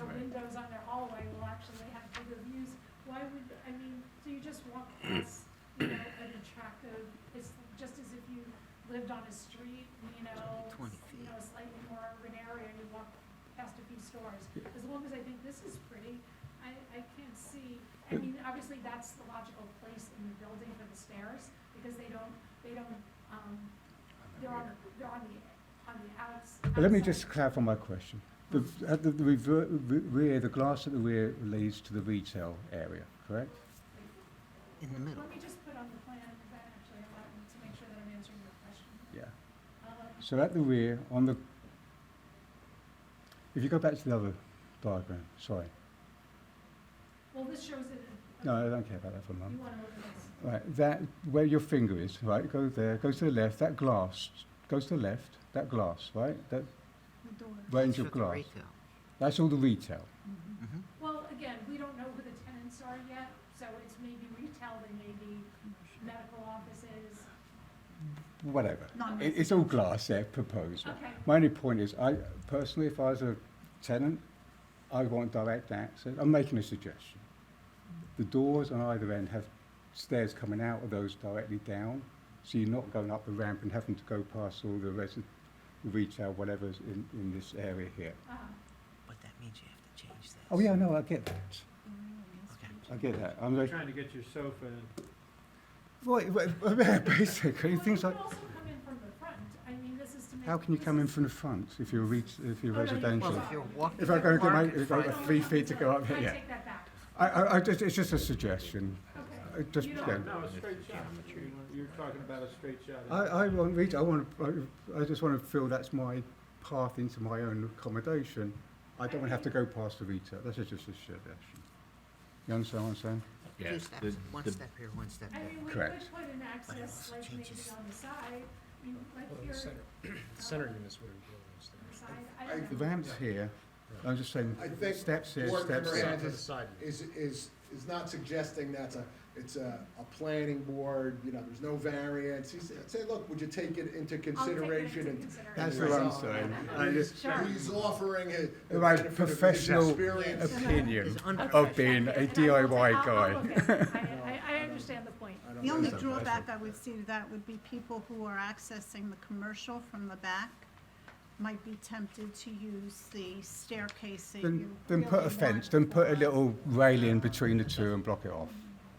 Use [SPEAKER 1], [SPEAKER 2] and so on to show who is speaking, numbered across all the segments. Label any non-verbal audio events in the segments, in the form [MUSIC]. [SPEAKER 1] on their hallway will actually have bigger views. Why would, I mean, so you just walk past, you know, an attractive, it's just as if you lived on a street, you know,
[SPEAKER 2] It's only 20
[SPEAKER 1] s- you know, a slightly more urban area, and you walk past a few stores. As long as I think this is pretty, I, I can't see, I mean, obviously, that's the logical place in the building for the stairs, because they don't, they don't, um, they're on, they're on the, on the outs.
[SPEAKER 3] Let me
[SPEAKER 1] outside.
[SPEAKER 3] just clarify my question. The, at the the rever- re- rear, the glass at the rear leads to the retail area, correct?
[SPEAKER 2] in the middle.
[SPEAKER 1] Let me just put on the plan, because that actually allowed me to make sure that I'm answering your question.
[SPEAKER 3] Yeah.
[SPEAKER 1] Um,
[SPEAKER 3] So at the rear, on the, if you go back to the other diagram, sorry.
[SPEAKER 1] Well, this shows it. in-
[SPEAKER 3] No, I don't care about that for a
[SPEAKER 1] You
[SPEAKER 3] moment.
[SPEAKER 1] want to look at this.
[SPEAKER 3] Right, that, where your finger is, right, go there, go to the left, that glass, goes to the left, that glass, right? That, Range of glass. that's all the retail.
[SPEAKER 2] Mm-hmm.
[SPEAKER 1] Well, again, we don't know who the tenants are yet, so it's maybe retail, they may be medical offices.
[SPEAKER 3] Whatever.
[SPEAKER 4] Not
[SPEAKER 3] It, it's all glass there, proposed. right?
[SPEAKER 1] Okay,
[SPEAKER 3] My only point is, I personally, if I was a tenant, I want direct access. I'm making a suggestion. The doors on either end have stairs coming out of those directly down, so you're not going up the ramp and having to go past all the resi- retail, whatever's in, in this area here.
[SPEAKER 1] uh,
[SPEAKER 2] But that means you have to change this.
[SPEAKER 3] Oh, yeah, no, I get that.
[SPEAKER 2] Okay.
[SPEAKER 3] I get that. I'm like,
[SPEAKER 5] Trying to get your sofa in.
[SPEAKER 3] well, well, yeah, [LAUGHS] basically,
[SPEAKER 1] well, you
[SPEAKER 3] things
[SPEAKER 1] could
[SPEAKER 3] like,
[SPEAKER 1] also come in from the front, I mean, this is to make.
[SPEAKER 3] how can you
[SPEAKER 1] this
[SPEAKER 3] come in
[SPEAKER 1] is-
[SPEAKER 3] from the front if you're re- if you're
[SPEAKER 1] Oh, no, you-
[SPEAKER 3] residential?
[SPEAKER 2] Well, if you're walking.
[SPEAKER 3] If I go and get my-
[SPEAKER 2] park in
[SPEAKER 3] if I
[SPEAKER 1] No,
[SPEAKER 3] go-
[SPEAKER 2] front-
[SPEAKER 3] three
[SPEAKER 1] no,
[SPEAKER 3] feet to
[SPEAKER 1] no,
[SPEAKER 3] go up,
[SPEAKER 1] I
[SPEAKER 3] yeah.
[SPEAKER 1] take that back,
[SPEAKER 3] I, I, I just, it's just a suggestion.
[SPEAKER 1] okay.
[SPEAKER 3] I just,
[SPEAKER 1] You
[SPEAKER 3] yeah.
[SPEAKER 1] don't-
[SPEAKER 5] No, a straight shot. You know, You're talking about a straight shot.
[SPEAKER 3] I, I want retail. I want. To, I, I just want to feel that's my path into my own accommodation. I don't want to have to go past the retail. That's just a suggestion. You understand what I'm saying?
[SPEAKER 2] Two steps, one step here, one step
[SPEAKER 1] I
[SPEAKER 2] there.
[SPEAKER 1] mean, we could
[SPEAKER 3] Correct.
[SPEAKER 1] put an access, like maybe
[SPEAKER 2] Changes.
[SPEAKER 1] on the side, you, like
[SPEAKER 6] Well,
[SPEAKER 1] here.
[SPEAKER 6] the center, [CLEARS THROAT] the center unit's where we're doing this
[SPEAKER 1] on the
[SPEAKER 6] thing.
[SPEAKER 1] side, I don't
[SPEAKER 3] The
[SPEAKER 1] know.
[SPEAKER 3] ramps here. I'm just saying.
[SPEAKER 7] I think
[SPEAKER 3] steps here,
[SPEAKER 7] Board
[SPEAKER 3] steps
[SPEAKER 7] member
[SPEAKER 3] there.
[SPEAKER 6] Side
[SPEAKER 7] Andrews
[SPEAKER 6] to the side unit.
[SPEAKER 7] is, is, is not suggesting that's a, it's a, a planning board, you know, there's no variance. He said, say, look, would you take it into
[SPEAKER 1] I'll take it
[SPEAKER 7] consideration?
[SPEAKER 1] into
[SPEAKER 7] and
[SPEAKER 3] That's
[SPEAKER 1] consideration.
[SPEAKER 3] what I'm saying. I just,
[SPEAKER 1] Sure.
[SPEAKER 7] He's offering a. the
[SPEAKER 3] My
[SPEAKER 7] benefit of his
[SPEAKER 3] professional
[SPEAKER 7] experience.
[SPEAKER 3] opinion
[SPEAKER 2] It's under-
[SPEAKER 3] of being a DIY guy.
[SPEAKER 1] guy. I, I understand the point.
[SPEAKER 7] I don't
[SPEAKER 4] The only
[SPEAKER 7] know.
[SPEAKER 4] drawback I would see to that would be people who are accessing the commercial from the back might be tempted to use the staircase that
[SPEAKER 3] Then,
[SPEAKER 4] you.
[SPEAKER 3] then put
[SPEAKER 4] really
[SPEAKER 3] a fence.
[SPEAKER 4] want
[SPEAKER 3] Then put a
[SPEAKER 4] for-
[SPEAKER 3] little railing between the two and block it off.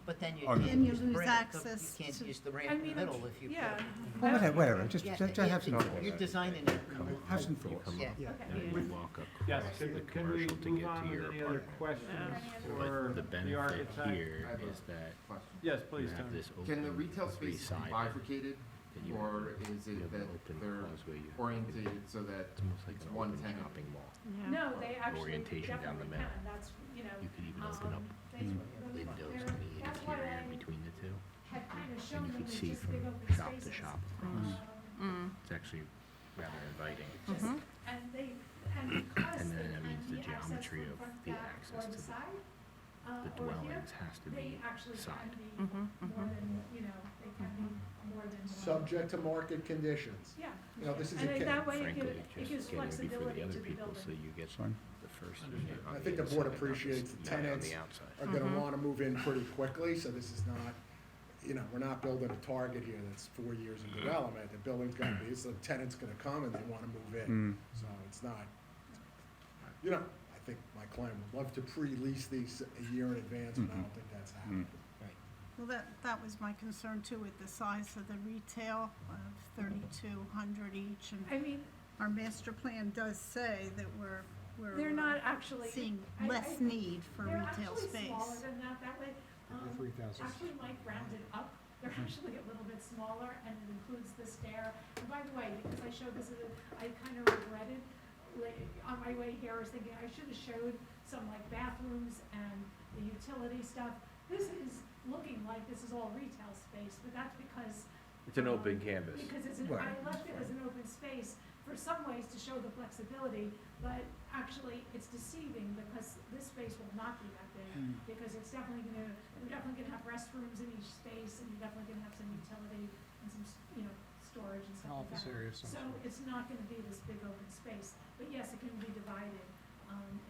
[SPEAKER 2] But then you
[SPEAKER 3] On-
[SPEAKER 2] can't
[SPEAKER 3] And
[SPEAKER 4] you
[SPEAKER 2] use the
[SPEAKER 4] lose
[SPEAKER 2] ramp, you
[SPEAKER 4] access
[SPEAKER 2] can't
[SPEAKER 4] to-
[SPEAKER 2] use the
[SPEAKER 1] I
[SPEAKER 2] ramp in the
[SPEAKER 1] mean,
[SPEAKER 2] middle if you put.
[SPEAKER 1] yeah.
[SPEAKER 3] Well, whatever, whatever. Just,
[SPEAKER 2] Yeah,
[SPEAKER 3] just, just have some.
[SPEAKER 2] you- You're designing it.
[SPEAKER 3] Have some thoughts.
[SPEAKER 2] Yeah.
[SPEAKER 6] Yeah.
[SPEAKER 1] Okay.
[SPEAKER 8] You walk up
[SPEAKER 5] Yes,
[SPEAKER 8] across
[SPEAKER 5] can,
[SPEAKER 8] the
[SPEAKER 5] can we
[SPEAKER 8] commercial to
[SPEAKER 5] move
[SPEAKER 8] get
[SPEAKER 5] on
[SPEAKER 8] to
[SPEAKER 5] with
[SPEAKER 8] your
[SPEAKER 5] any other
[SPEAKER 8] apartment.
[SPEAKER 5] questions for
[SPEAKER 8] But the
[SPEAKER 5] the
[SPEAKER 8] benefit
[SPEAKER 5] architect?
[SPEAKER 8] here
[SPEAKER 9] I have a
[SPEAKER 8] is that
[SPEAKER 9] Question.
[SPEAKER 5] Yes, please,
[SPEAKER 8] you have
[SPEAKER 5] Tony.
[SPEAKER 8] this open.
[SPEAKER 9] Can the retail
[SPEAKER 8] three
[SPEAKER 9] space be
[SPEAKER 8] sided,
[SPEAKER 9] bifurcated,
[SPEAKER 8] and you have
[SPEAKER 9] or
[SPEAKER 8] a-
[SPEAKER 9] is
[SPEAKER 8] you
[SPEAKER 9] it
[SPEAKER 8] have an
[SPEAKER 9] that
[SPEAKER 8] open
[SPEAKER 9] they're
[SPEAKER 8] causeway, you have
[SPEAKER 9] oriented so that
[SPEAKER 8] It's almost like
[SPEAKER 9] it's
[SPEAKER 8] an
[SPEAKER 9] one
[SPEAKER 8] open
[SPEAKER 9] tenant?
[SPEAKER 8] shopping mall.
[SPEAKER 4] Yeah.
[SPEAKER 1] No, they actually
[SPEAKER 8] Orientation down the
[SPEAKER 1] definitely
[SPEAKER 8] middle.
[SPEAKER 1] can, that's, you know,
[SPEAKER 8] You could even open
[SPEAKER 1] um,
[SPEAKER 8] up Mm.
[SPEAKER 1] they,
[SPEAKER 8] windows
[SPEAKER 1] they're-
[SPEAKER 8] on the
[SPEAKER 1] that's why
[SPEAKER 8] interior
[SPEAKER 1] I
[SPEAKER 8] between the two,
[SPEAKER 1] had kind of
[SPEAKER 8] and
[SPEAKER 1] shown
[SPEAKER 8] you
[SPEAKER 1] them
[SPEAKER 8] could
[SPEAKER 1] as
[SPEAKER 8] see
[SPEAKER 1] just
[SPEAKER 8] from
[SPEAKER 1] big open
[SPEAKER 8] shop to
[SPEAKER 1] spaces.
[SPEAKER 8] shop.
[SPEAKER 3] Mm.
[SPEAKER 8] Mm.
[SPEAKER 1] Um,
[SPEAKER 9] Mm-hmm,
[SPEAKER 8] It's actually rather inviting.
[SPEAKER 1] just-
[SPEAKER 3] Mm-hmm.
[SPEAKER 1] And they, and because
[SPEAKER 8] And
[SPEAKER 1] they
[SPEAKER 8] then that means
[SPEAKER 1] can
[SPEAKER 8] the
[SPEAKER 1] be accessed
[SPEAKER 8] geometry
[SPEAKER 1] from
[SPEAKER 8] of
[SPEAKER 1] front,
[SPEAKER 8] the
[SPEAKER 1] back, or
[SPEAKER 8] access
[SPEAKER 1] the
[SPEAKER 8] to the-
[SPEAKER 1] side, uh,
[SPEAKER 8] The
[SPEAKER 1] or here,
[SPEAKER 8] dwellings has to
[SPEAKER 1] they uh,
[SPEAKER 8] be
[SPEAKER 1] actually can
[SPEAKER 8] side.
[SPEAKER 1] be
[SPEAKER 4] Mm-hmm.
[SPEAKER 9] mm-hmm,
[SPEAKER 1] more than, you know, they can be more than one.
[SPEAKER 7] Subject to market conditions.
[SPEAKER 1] Yeah.
[SPEAKER 7] You know, this is a
[SPEAKER 1] And then
[SPEAKER 7] case.
[SPEAKER 1] that way it
[SPEAKER 8] frankly,
[SPEAKER 1] gives,
[SPEAKER 8] it
[SPEAKER 1] it gives
[SPEAKER 8] just getting it before
[SPEAKER 1] flexibility
[SPEAKER 8] the
[SPEAKER 1] to
[SPEAKER 8] other
[SPEAKER 1] the
[SPEAKER 8] people, so
[SPEAKER 1] building.
[SPEAKER 8] you get
[SPEAKER 3] Fine.
[SPEAKER 8] the first
[SPEAKER 5] Understood.
[SPEAKER 8] unit on
[SPEAKER 7] I
[SPEAKER 8] the
[SPEAKER 7] think the
[SPEAKER 8] inside,
[SPEAKER 7] board
[SPEAKER 8] not the
[SPEAKER 7] appreciates
[SPEAKER 8] s-
[SPEAKER 7] the
[SPEAKER 8] not
[SPEAKER 7] tenants
[SPEAKER 8] On the outside.
[SPEAKER 7] Are
[SPEAKER 1] Mm-hmm.
[SPEAKER 7] gonna wanna move in pretty quickly, so this is not, you know, we're not building a target here that's four years in
[SPEAKER 3] Mm-hmm.
[SPEAKER 7] development. The building's gonna be, it's, the tenant's gonna come and they wanna move
[SPEAKER 3] Mm.
[SPEAKER 7] in. So it's not, you know, I think my client would love to pre-lease these a year in advance, but I don't think that's
[SPEAKER 3] Mm-hmm.
[SPEAKER 7] happening.
[SPEAKER 4] Well, that, that was my concern too with the size of the retail of thirty-two hundred each and
[SPEAKER 1] I mean,
[SPEAKER 4] our master plan does say that we're, we're.
[SPEAKER 1] they're
[SPEAKER 4] uh,
[SPEAKER 1] not actually,
[SPEAKER 4] Seeing
[SPEAKER 1] I-
[SPEAKER 4] less
[SPEAKER 1] I-
[SPEAKER 4] need for
[SPEAKER 1] they're
[SPEAKER 4] retail
[SPEAKER 1] actually smaller
[SPEAKER 4] space.
[SPEAKER 1] than that, that way. um,
[SPEAKER 6] Three thousand.
[SPEAKER 1] Actually, Mike rounded up, they're
[SPEAKER 7] Mm-hmm.
[SPEAKER 1] actually a little bit smaller, and it includes the stair. And by the way, because I showed this, uh, I kind of regretted, like, on my way here, I was thinking, I should have showed some like bathrooms and the utility stuff. This is looking like this is all retail space, but that's because.
[SPEAKER 10] It's an open
[SPEAKER 1] um,
[SPEAKER 10] canvas.
[SPEAKER 1] Because it's, an- I left it as an open space for some ways to show the flexibility, but actually, it's deceiving because this space will not be that big
[SPEAKER 3] Mm.
[SPEAKER 1] because it's definitely gonna, we're definitely gonna have restrooms in each space, and you're definitely gonna have some utility and some, s- you know, storage and stuff like
[SPEAKER 6] Office
[SPEAKER 1] that.
[SPEAKER 6] area of some
[SPEAKER 1] So
[SPEAKER 6] sort.
[SPEAKER 1] it's not gonna be this big open space, but yes, it can be divided, um,